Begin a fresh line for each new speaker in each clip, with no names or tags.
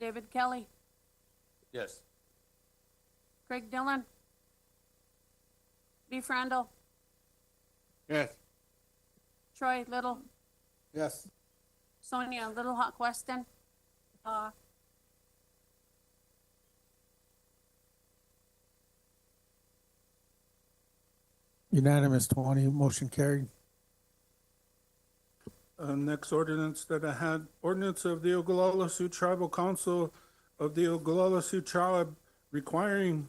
David Kelly,
Yes.
Craig Dillon, Lee Frandl,
Yes.
Troy Little,
Yes.
Sonia Little Hawk Weston, uh,
Unanimous, 20, motion carried.
Uh, next ordinance that I had, ordinance of the Ogallala Sioux Tribal Council of the Ogallala Sioux Tribe requiring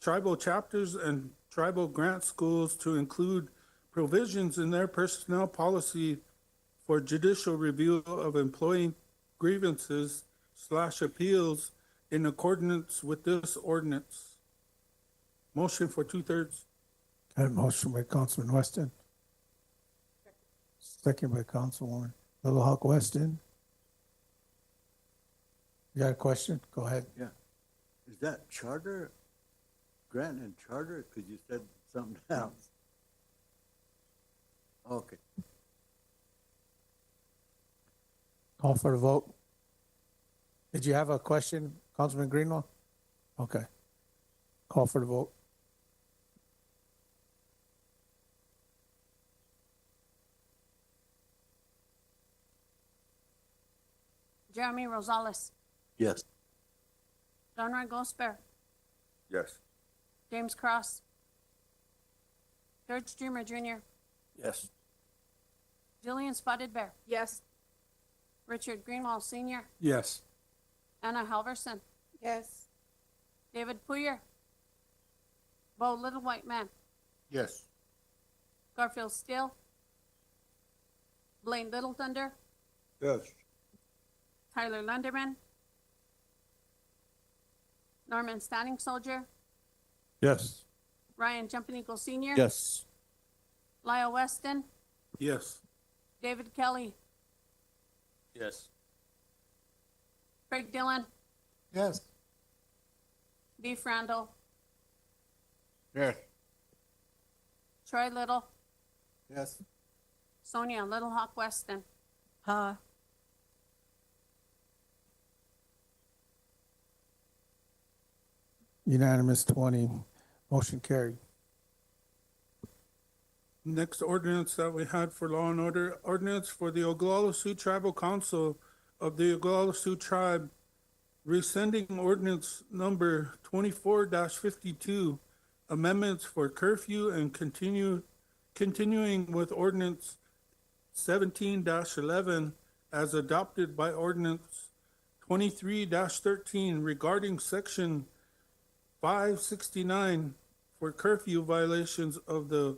tribal chapters and tribal grant schools to include provisions in their personnel policy for judicial review of employee grievances slash appeals in accordance with this ordinance. Motion for two-thirds.
That motion by Councilman Weston. Second by Councilwoman Little Hawk Weston. You got a question? Go ahead.
Is that charter, grant and charter? Because you said something else. Okay,
Call for the vote. Did you have a question, Councilman Greenlaw? Okay. Call for the vote.
Jeremy Rosales,
yes.
Donroy Gosper,
Yes.
James Cross, George Dreamer Jr.,
Yes.
Jillian Spotted Bear. Yes. Richard Greenwald Senior,
Yes.
Anna Halverson,
yes,
David Poyer, Bo Little White Man,
Yes.
Garfield Steele, Blaine Little Thunder,
Yes.
Tyler Lunderman, Norman Standing Soldier,
Yes.
Ryan Jumping Eagle Senior,
Yes.
Lyle Weston,
Yes.
David Kelly,
Yes.
Craig Dillon,
Yes.
Dee Randall,
Yes.
Troy Little,
Yes.
Sonia Little Hawk Weston,
huh,
Unanimous, 20, motion carried.
Next ordinance that we had for law and order, ordinance for the Oglala Sioux Tribal Council of the Oglala Sioux Tribe rescinding ordinance number twenty-four fifty-two, amendments for curfew and continue, continuing with ordinance seventeen eleven as adopted by ordinance twenty-three thirteen regarding section five sixty-nine for curfew violations of the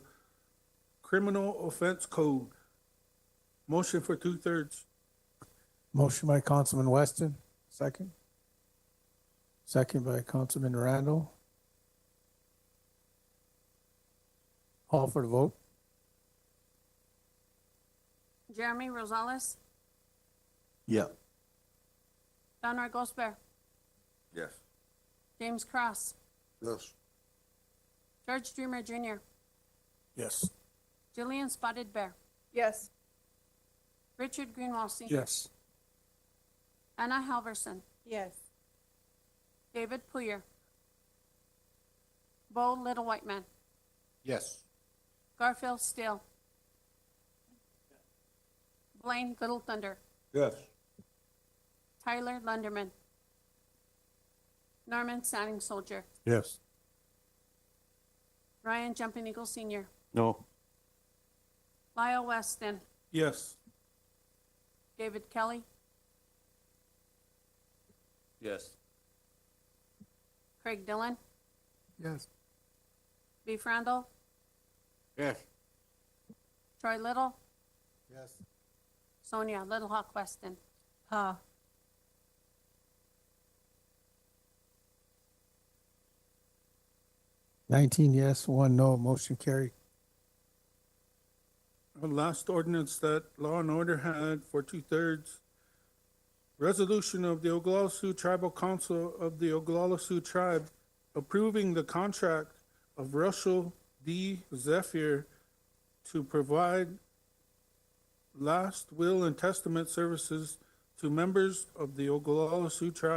Criminal Offense Code. Motion for two-thirds.
Motion by Councilman Weston, second. Second by Councilman Randall. Call for the vote.
Jeremy Rosales,
Yeah,
Donroy Gosper,
Yes.
James Cross,
Yes.
George Dreamer Jr.,
Yes.
Jillian Spotted Bear,
yes,
Richard Greenwald Senior,
Yes.
Anna Halverson,
yes,
David Poyer, Bo Little White Man,
Yes.
Garfield Steele, Blaine Little Thunder,
Yes.
Tyler Lunderman, Norman Standing Soldier,
Yes.
Ryan Jumping Eagle Senior,
No.
Lyle Weston,
Yes.
David Kelly,
Yes.
Craig Dillon,
Yes.
Lee Frandl,
Yes.
Troy Little,
Yes.
Sonia Little Hawk Weston,
huh,
Nineteen yes, one no, motion carried.
Our last ordinance that Law and Order had for two-thirds. Resolution of the Oglala Sioux Tribal Council of the Oglala Sioux Tribe approving the contract of Russell D. Zephyr to provide last will and testament services to members of the Oglala Sioux Tribe